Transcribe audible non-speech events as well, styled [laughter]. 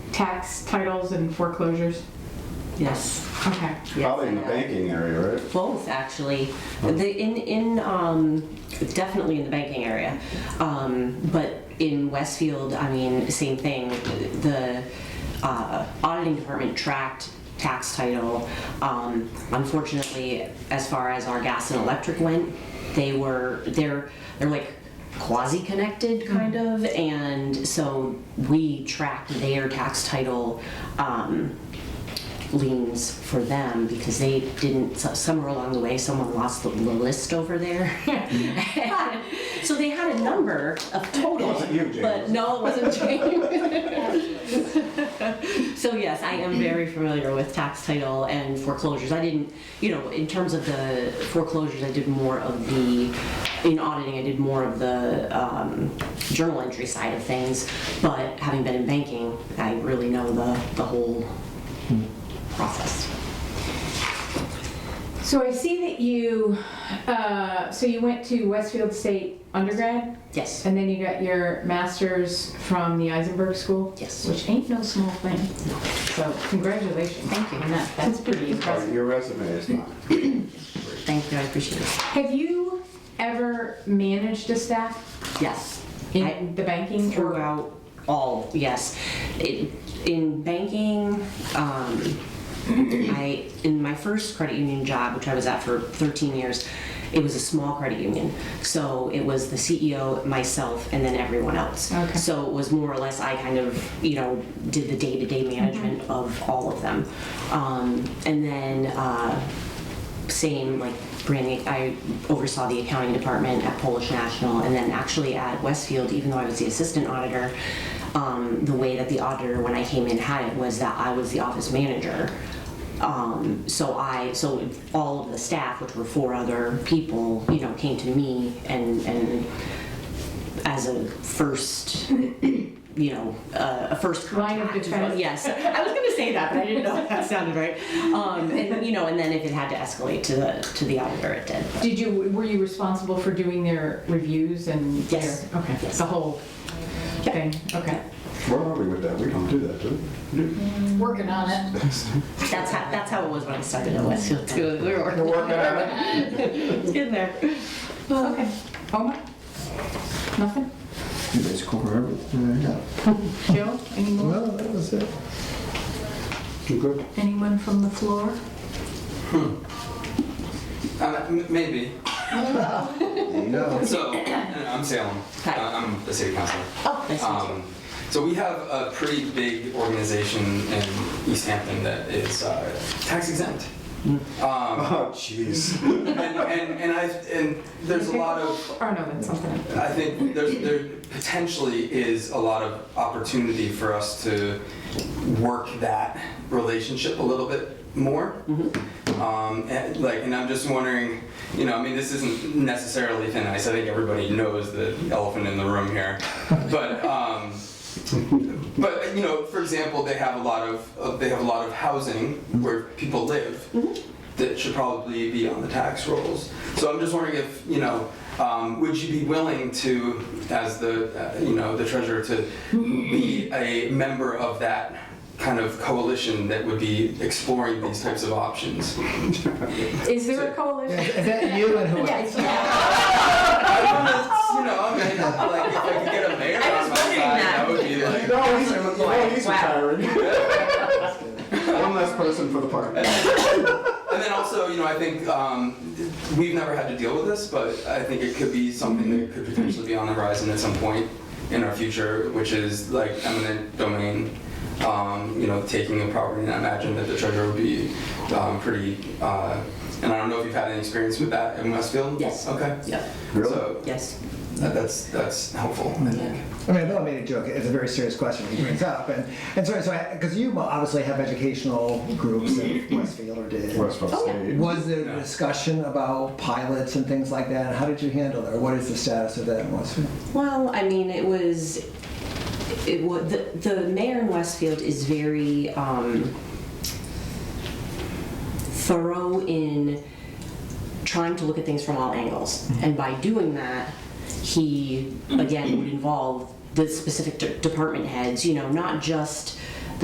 tax titles and foreclosures? Yes. Okay. yes, Probably in the I know. banking area, right? Both, actually. The, in, in, um, definitely in the banking area. Um, but in Westfield, I mean, same thing. The, uh, auditing department tracked tax title. Um, unfortunately, as far as our gas and electric went, they were, they're, they're like quasi-connected kind of. And so we tracked their tax title, um, liens for them because they didn't, so- somewhere along the way, someone lost the the list over there. [laughs] So they had a number of total. wasn't you, James. But no, it wasn't James. [laughs] So yes, I am very familiar with tax title and foreclosures. I didn't, you know, in terms of the foreclosures, I did more of the, in auditing, I did more of the um, journal entry side of things. But having been in banking, I really know the, the whole process. So I see that you, uh, so you went to Westfield State undergrad, Yes. and then you got your master's from the Eisenberg School? Yes. Which ain't no small thing. So congratulations. Thank you. on that. That's pretty impressive. Your resume is not. Thank you. I appreciate it. Have you ever managed a staff Yes. in I- the banking? or- throughout all, yes. It, in banking, um, [clears throat] I, in my first credit union job, which I was at for 13 years, it was a small credit union. So it was the CEO, myself, and then everyone else. Okay. So it was more or less, I kind of, you know, did the day-to-day management of all of them. Um, and then, uh, same, like, branding, I oversaw the accounting department at Polish National, and then actually at Westfield, even though I was the assistant auditor, um, the way that the auditor, when I came in, had it was that I was the office manager. Um, so I, so all of the staff, which were four other people, you know, came to me and, and as a first, you know, uh, a first Line of contact. defense. Yes, I was going to say that, but I didn't know if that sounded right. Um, and you know, and then if it had to escalate to the to the auditor, it did. Did you, were you responsible for doing their reviews and? their- Yes. Okay, Yes. the whole Yep. thing, okay. Where are we with that? We don't do that, do we? Working on it. That's how that's how it was when I started at Westfield too. We were We're working on it. working in there. Okay, Omar? Nothing? You guys cover everything I [laughs] got. Jill, any more? Well, that was it. You good? Anyone from the floor? Uh, m- maybe. No. So, I'm Salem. Hi. Uh, I'm the city councilor. Oh, nice to meet you. Um, so we have a pretty big organization in East Hampton that is uh, tax exempt. Um, Oh, jeez. [laughs] and, and, and I and there's a lot of Or no, that's something. else. I think there's, there potentially is a lot of opportunity for us to work that relationship a little bit more. Um, and like, and I'm just wondering, you know, I mean, this isn't necessarily thin ice. I think everybody knows the elephant in the room here, but. Um, but you know, for example, they have a lot of uh, they have a lot of housing where people live that should probably be on the tax rolls. So I'm just wondering if you know, um, would you be willing to, as the uh, you know the treasurer, to be a member of that kind of coalition that would be exploring these types of options? Is there a coalition? Is that you and who else? I don't know, it's, you know, I mean, like if I could get a mayor Oh. I on was my wondering side, that. that would No, he's, no, be like. he's Wow. retiring. [laughs] One less person for the park. And then also, you know, I think um, we've never had to deal with this, but I think it could be something that could potentially be on the horizon at some point in our future, which is like eminent domain. Um, you know, taking a property, and I imagine that the treasurer would be um, pretty. Uh, and I don't know if you've had any experience with that in Westfield. Yes. Okay. Yeah. Really? So Yes. that, that's that's helpful. I think. I mean, I don't mean to joke. It's a very serious question he brings up, and and sorry, so because you obviously have educational groups in Westfield or did. Westfield State. Was there discussion about pilots and things like that? And how did you handle that? Or what is the status of that in Westfield? Well, I mean, it was, it was, the, the mayor in Westfield is very um, thorough in trying to look at things from all angles. And by doing that, he, again, would involve the specific de- department heads, you know, not just